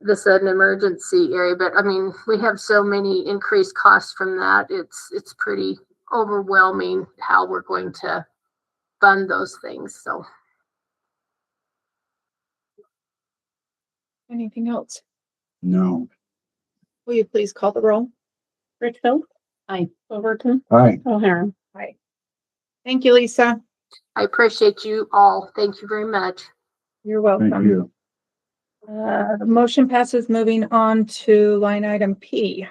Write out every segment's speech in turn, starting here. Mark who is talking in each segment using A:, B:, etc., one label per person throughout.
A: this an emergency area, but I mean, we have so many increased costs from that. It's, it's pretty overwhelming how we're going to fund those things, so.
B: Anything else?
C: No.
B: Will you please call the roll?
D: Richfield.
B: Aye.
D: Overton.
C: Aye.
D: O'Hara.
B: Thank you, Lisa.
A: I appreciate you all. Thank you very much.
B: You're
C: Thank
B: welcome.
C: you.
B: Uh, the motion passes. Moving on to line item P.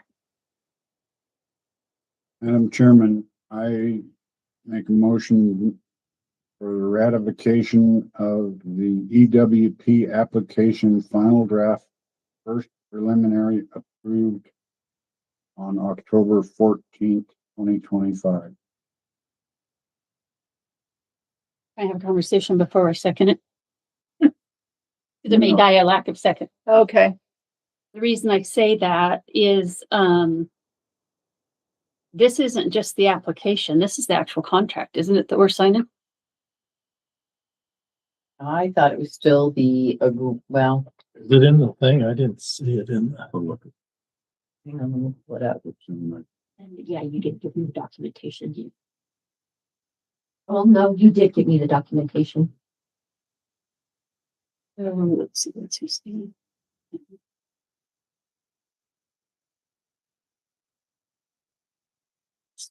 C: Madam Chairman, I make a motion for the ratification of the EWP application final draft, first preliminary approved on October fourteenth, twenty twenty-five.
D: I have a conversation before I second it. There may die a lack of second.
B: Okay.
D: The reason I say that is, um, this isn't just the application, this is the actual contract, isn't it, that we're signing?
E: I thought it was still the, agr- well,
F: Is it in the thing? I didn't see it in the.
E: hang on, let me pull it up.
G: And yeah, you did give me the documentation. You. Well, no, you did give me the documentation.
D: Um, let's see, let's see.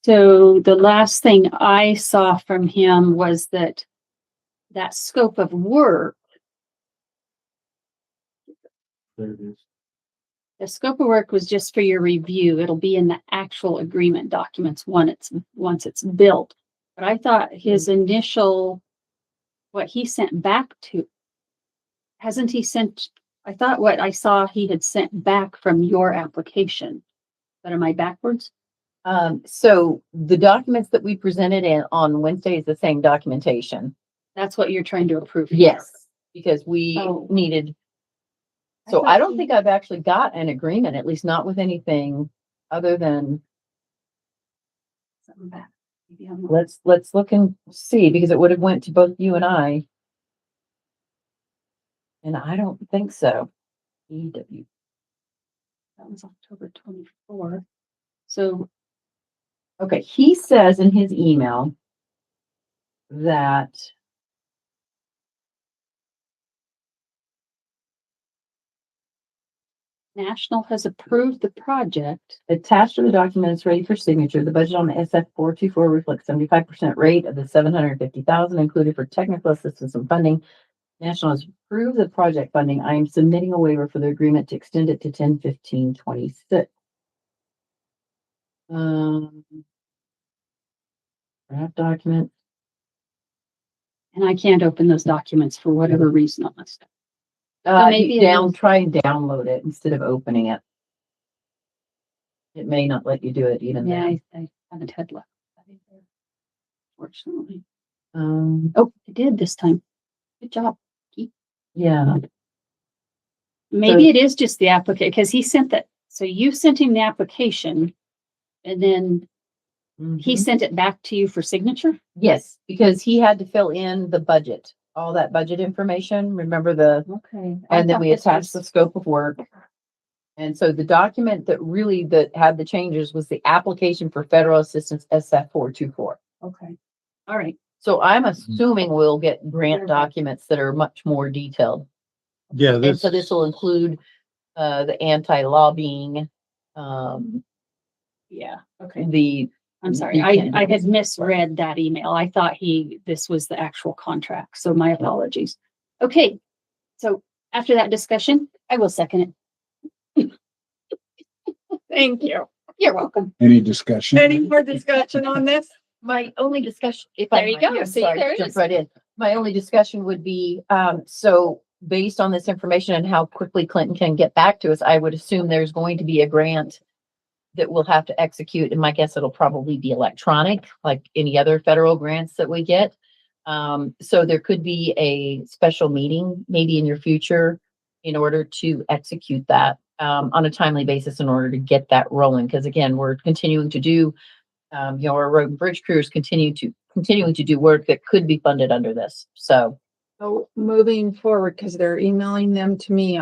D: So the last thing I saw from him was that that scope of work,
F: There it is.
D: the scope of work was just for your review. It'll be in the actual agreement documents when it's, once it's built. But I thought his initial, what he sent back to, hasn't he sent, I thought what I saw he had sent back from your application. But am I backwards?
E: Um, so the documents that we presented in on Wednesday is the same documentation.
D: That's what you're trying to approve. here.
E: Yes, because we
D: Oh.
E: needed,
D: I
E: so
D: thought
E: I don't
D: you-
E: think I've actually got an agreement, at least not with anything other than,
D: Something back. Maybe I'm not-
E: let's, let's look and see, because it would have went to both you and I. And I don't think so. E EW.
D: That was October twenty-four. So
E: Okay, he says in his email that
D: National has approved the project.
E: attached to the document is ready for signature. The budget on the SF four two four reflects seventy-five percent rate of the seven hundred and fifty thousand included for technical assistance and funding. National has approved the project funding. I am submitting a waiver for the agreement to extend it to ten fifteen twenty-six. Um. Draft document.
D: And I can't open those documents for whatever reason on this.
E: Uh,
D: maybe
E: you
D: it
E: down,
D: is-
E: try and download it instead of opening it. It may not let you do it even
D: Yeah,
E: then.
D: I, I haven't had luck. with that either, Fortunately.
E: Um,
D: Oh, I did this time. Good job.
E: yeah,
D: Maybe it is just the applicant, because he sent that, so you sent him the application. And then he
E: Mhm.
D: sent it back to you for signature?
E: Yes, because he had to fill in the budget, all that budget information, remember the,
D: Okay.
E: and then we attached the scope of work. And so the document that really that had the changes was the application for federal assistance SF four two four.
D: Okay. All right.
E: So I'm assuming we'll get grant
D: Perfect.
E: documents that are much more detailed.
F: Yeah,
E: And
F: this,
E: so this will include uh the anti-lobbying, um,
D: Yeah. Okay.
E: the,
D: I'm sorry.
E: You
D: I,
E: can-
D: I had misread that email. I thought he, this was the actual contract. So my apologies. Okay. So after that discussion, I will second it. Thank you. You're welcome.
C: Any discussion?
B: Any more discussion on this?
E: My only discussion. if
D: There
E: I
D: you
E: might,
D: go.
E: I'm
D: See,
E: sorry to
D: there it
E: jump
D: is.
E: Right in. My only discussion would be, um, so based on this information and how quickly Clinton can get back to us, I would assume there's going to be a grant that we'll have to execute, and my guess it'll probably be electronic, like any other federal grants that we get. Um, so there could be a special meeting maybe in your future in order to execute that um, on a timely basis in order to get that rolling. Because again, we're continuing to do, um, you know, our road and bridge crews continue to, continuing to do work that could be funded under this. So
B: Oh, So moving forward, because they're emailing them to me